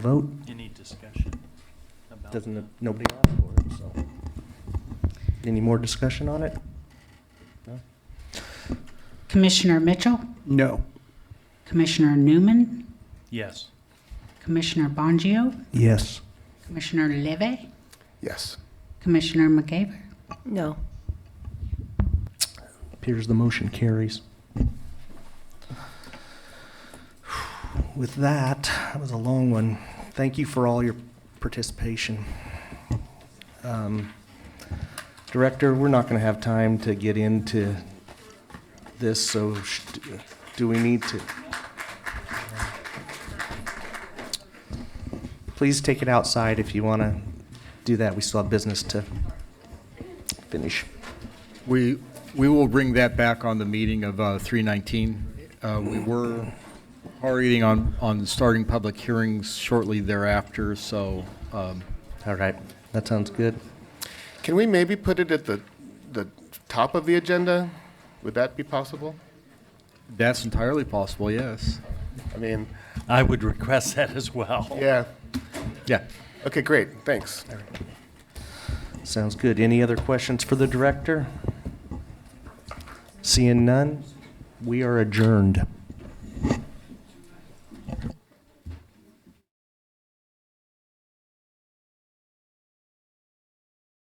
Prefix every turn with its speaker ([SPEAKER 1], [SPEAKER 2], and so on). [SPEAKER 1] vote,
[SPEAKER 2] Any discussion about?
[SPEAKER 1] doesn't, nobody asked for it, so. Any more discussion on it?
[SPEAKER 3] Commissioner Mitchell,
[SPEAKER 4] No.
[SPEAKER 3] Commissioner Newman,
[SPEAKER 2] Yes.
[SPEAKER 3] Commissioner Bongio,
[SPEAKER 1] Yes.
[SPEAKER 3] Commissioner Leve,
[SPEAKER 4] Yes.
[SPEAKER 3] Commissioner McGavin.
[SPEAKER 5] No.
[SPEAKER 1] Appears the motion carries. With that, that was a long one. Thank you for all your participation. Um, Director, we're not going to have time to get into this, so sh- do we need to? Please take it outside if you want to do that. We still have business to finish.
[SPEAKER 4] We, we will bring that back on the meeting of uh, 319. Uh, We were already on, on starting public hearings shortly thereafter, so um,
[SPEAKER 1] All right, that sounds good.
[SPEAKER 6] Can we maybe put it at the, the top of the agenda? Would that be possible?
[SPEAKER 4] that's entirely possible, yes.
[SPEAKER 6] I mean,
[SPEAKER 2] I would request that as well.
[SPEAKER 6] yeah,
[SPEAKER 4] Yeah.
[SPEAKER 6] okay, great, thanks.
[SPEAKER 1] Sounds good. Any other questions for the director? Seeing none, we are adjourned.